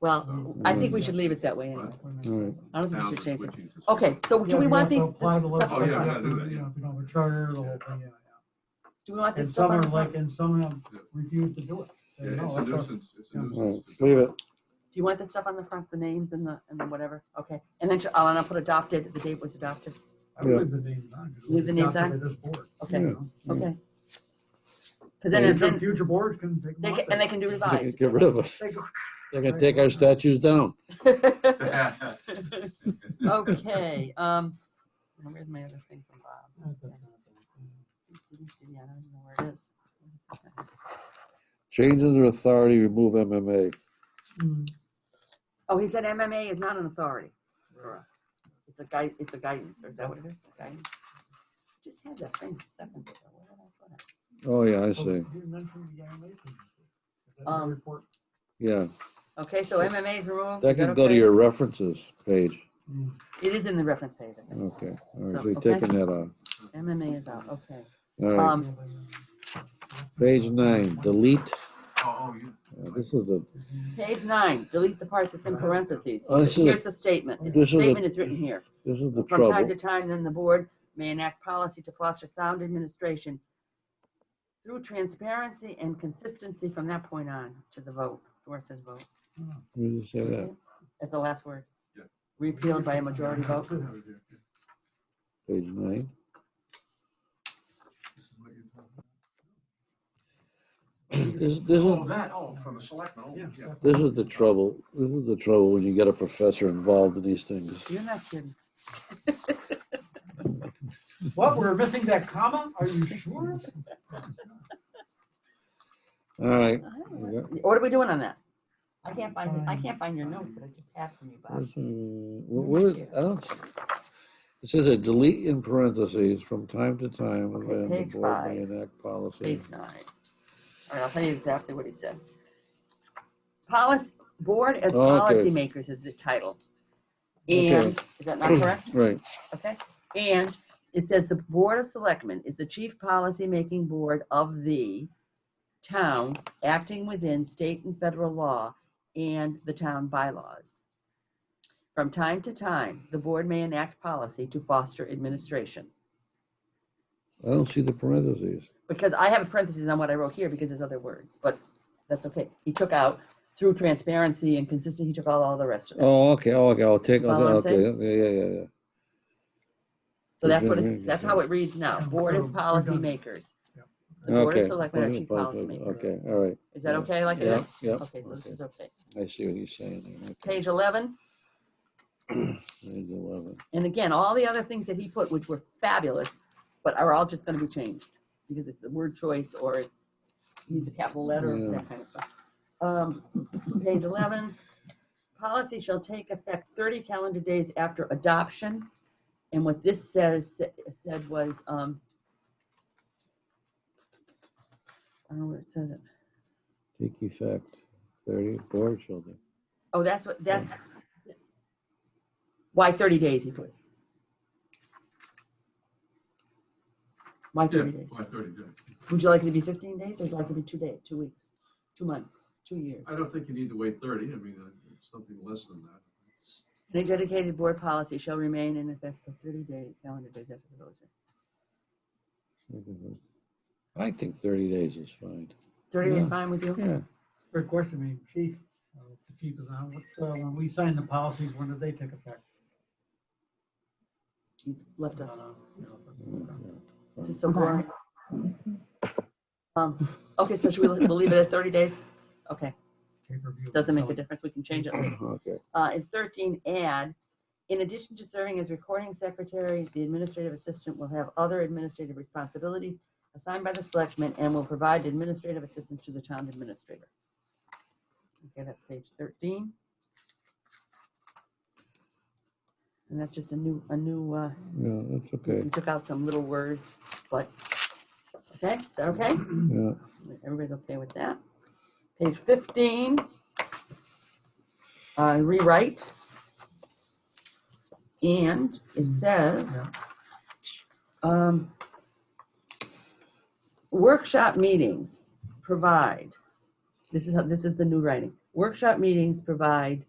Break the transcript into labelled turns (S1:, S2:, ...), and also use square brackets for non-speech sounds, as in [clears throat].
S1: Uh,
S2: Well, I think we should leave it that way anyway.
S3: All right.
S2: I don't think we
S1: Now
S2: should change it.
S1: switching to-
S2: Okay, so do we want these,
S1: Oh, yeah, we gotta do that, yeah.
S4: If you know, the charter, the whole thing, yeah, yeah.
S2: do we want
S4: And
S2: this
S4: some
S2: stuff on
S4: are
S2: the front?
S4: like,
S2: Do
S4: and some of them refuse to do it. Say,
S1: Yeah,
S4: "No,
S1: it's
S4: that's
S1: a
S4: our-
S1: nuisance, it's a
S4: Yeah.
S3: All right,
S1: nuisance.
S3: leave it.
S2: you want this stuff on the front, the names and the, and the whatever? Okay, and then I'll, and I'll put adopted, the date was adopted.
S4: I believe the name's on. 'cause it was
S2: Leave the names
S4: adopted
S2: on?
S4: by This board.
S2: Okay.
S4: you know.
S3: Yeah.
S2: Okay. Because then,
S4: Future,
S2: then
S4: [laughs] future boards can take.
S2: they can,
S4: them up
S2: and they
S4: there.
S2: can do
S3: They can
S2: revise.
S3: Get rid of us.
S4: They go-
S3: They're gonna take our statues down.
S2: [laughs] Okay, um, now where's my other thing from Bob?
S4: That's what's happening.
S2: Yeah, I don't even know where it is.
S3: Change under authority, remove MMA.
S4: Mm,
S2: Oh, he said MMA is not an authority for us. It's a guide, it's a guidance, or is that what it is? Guidance? Just had that thing a second ago. Where did I put it?
S3: Oh, yeah, I
S4: oh,
S3: see.
S4: you mentioned the animation. Is that in the
S2: Um,
S4: report?
S3: Yeah,
S2: Okay, so MMA is removed.
S3: that
S2: Is that
S3: can go to
S2: okay?
S3: your references page.
S4: Mm.
S2: It is in the reference page. I think.
S3: Okay, all
S2: So,
S3: right, so you're
S2: okay.
S3: taking that off.
S2: MMA is out, okay.
S3: All right,
S2: Um,
S4: uh,
S3: page nine, delete.
S1: [laughs] Oh, oh, yeah.
S3: Uh, This is the,
S2: page nine, delete the parts that's in parentheses.
S3: Oh, this is a-
S2: Here's the statement. The
S3: this is a-
S2: statement is written here.
S3: this is the
S2: From time to
S3: trouble.
S2: time, then the board may enact policy to foster sound administration through transparency and consistency from that point on to the vote, where it says vote,
S3: Where does it say that?
S2: at the last word.
S1: Yeah.
S2: Repealed by a majority vote.
S1: Have it here.
S3: Page nine. [clears throat]
S1: This is what you're talking
S3: This, this
S1: about. Oh,
S3: is,
S1: that, oh, from the selectmen, oh,
S4: Yeah,
S1: yeah.
S4: so-
S3: this is the trouble. This is the trouble when you get a professor involved in these things.
S2: You're not kidding.
S4: What, we're missing that comma? Are you sure?
S3: All
S2: I
S3: right.
S2: don't
S3: you got-
S2: know. What are we doing on that? I can't find, it. I can't find your notes that I just had from you, Bob.
S3: where's, uh, wh- Where, is- I don't, s- it says a delete in parentheses from time to time.
S2: Okay,
S3: when the
S2: page
S3: board may
S2: five.
S3: Enact policy.
S2: Page nine. All right, I'll tell you exactly what he said. Policy, board as
S3: Okay.
S2: policymakers is the title.
S3: Okay.
S2: And, is that not correct?
S3: Right,
S2: Okay, and it says the Board of Selectmen is the chief policymaking board of the town acting within state and federal law and the town bylaws. From time to time, the board may enact policy to foster administration.
S3: I don't see the parentheses.
S2: Because I have a parenthesis on what I wrote here because there's other words, but that's okay. He took out through transparency and consistency, he took out all the rest of it.
S3: Oh, okay, oh, okay, I'll take,
S2: Follow what I'm
S3: okay, okay, yeah, yeah, yeah.
S2: So that's what
S3: okay,
S2: it's, that's how it reads now. Board is
S4: So, we're done.
S2: policymakers.
S4: Yeah.
S2: The Board of
S3: Okay,
S2: Selectmen are
S3: okay,
S2: chief
S3: okay,
S2: policymakers.
S3: Okay, all right,
S2: Is that
S3: Yeah.
S2: okay like it
S3: yeah,
S2: is?
S3: yeah.
S2: Okay, so this
S3: okay.
S2: is okay.
S3: I see what he's saying. there, okay.
S2: Page 11,
S3: Page 11.
S2: and again, all the other things that he put, which were fabulous, but are all just gonna be changed, because it's a word choice, or it's, needs a capital letter,
S3: Yeah.
S2: that kind of stuff. Um, [clears throat] Page 11, policy shall take effect 30 calendar days after adoption, and what this says, said was, um, I don't know where it says it.
S3: Take effect, 30 board children.
S2: Oh, that's what, that's, why 30 days, he put. Why
S1: Yeah,
S2: 30 days?
S1: by thirty days.
S2: Would you like it to be 15 days or would you like it to be two days, two weeks, two months, two years?
S1: I don't think you need to wait thirty, I mean, uh, it's something less than that.
S2: Any dedicated board policy shall remain in effect for 30 day calendar days after the vote.
S3: I think 30 days is fine.
S2: 30 days
S3: Yeah.
S2: fine with you?
S3: Yeah,
S4: Good question, I mean, chief, uh, the chief is on, what, uh, when we sign the policies, when do they take effect?
S2: He's left us.
S4: Uh, you know,
S3: yeah, yeah.
S2: This is so boring. Um, okay, so should we, we'll leave it at 30 days? Okay,
S4: take review.
S2: doesn't make a difference. We can change it later.
S3: Okay,
S2: uh, and thirteen add, in addition to serving as recording secretary, the administrative assistant will have other administrative responsibilities assigned by the selectmen and will provide administrative assistance to the town administrator. Okay, that's page thirteen. And that's just a new, a new, uh,
S3: yeah, that's okay,
S2: we took out some little words, but, okay, is that okay?
S3: yeah.
S2: Everybody's okay with that? Page fifteen. Uh, rewrite. And it says,
S4: Yeah.
S2: um, workshop meetings provide, this is, how this is the new writing. Workshop meetings provide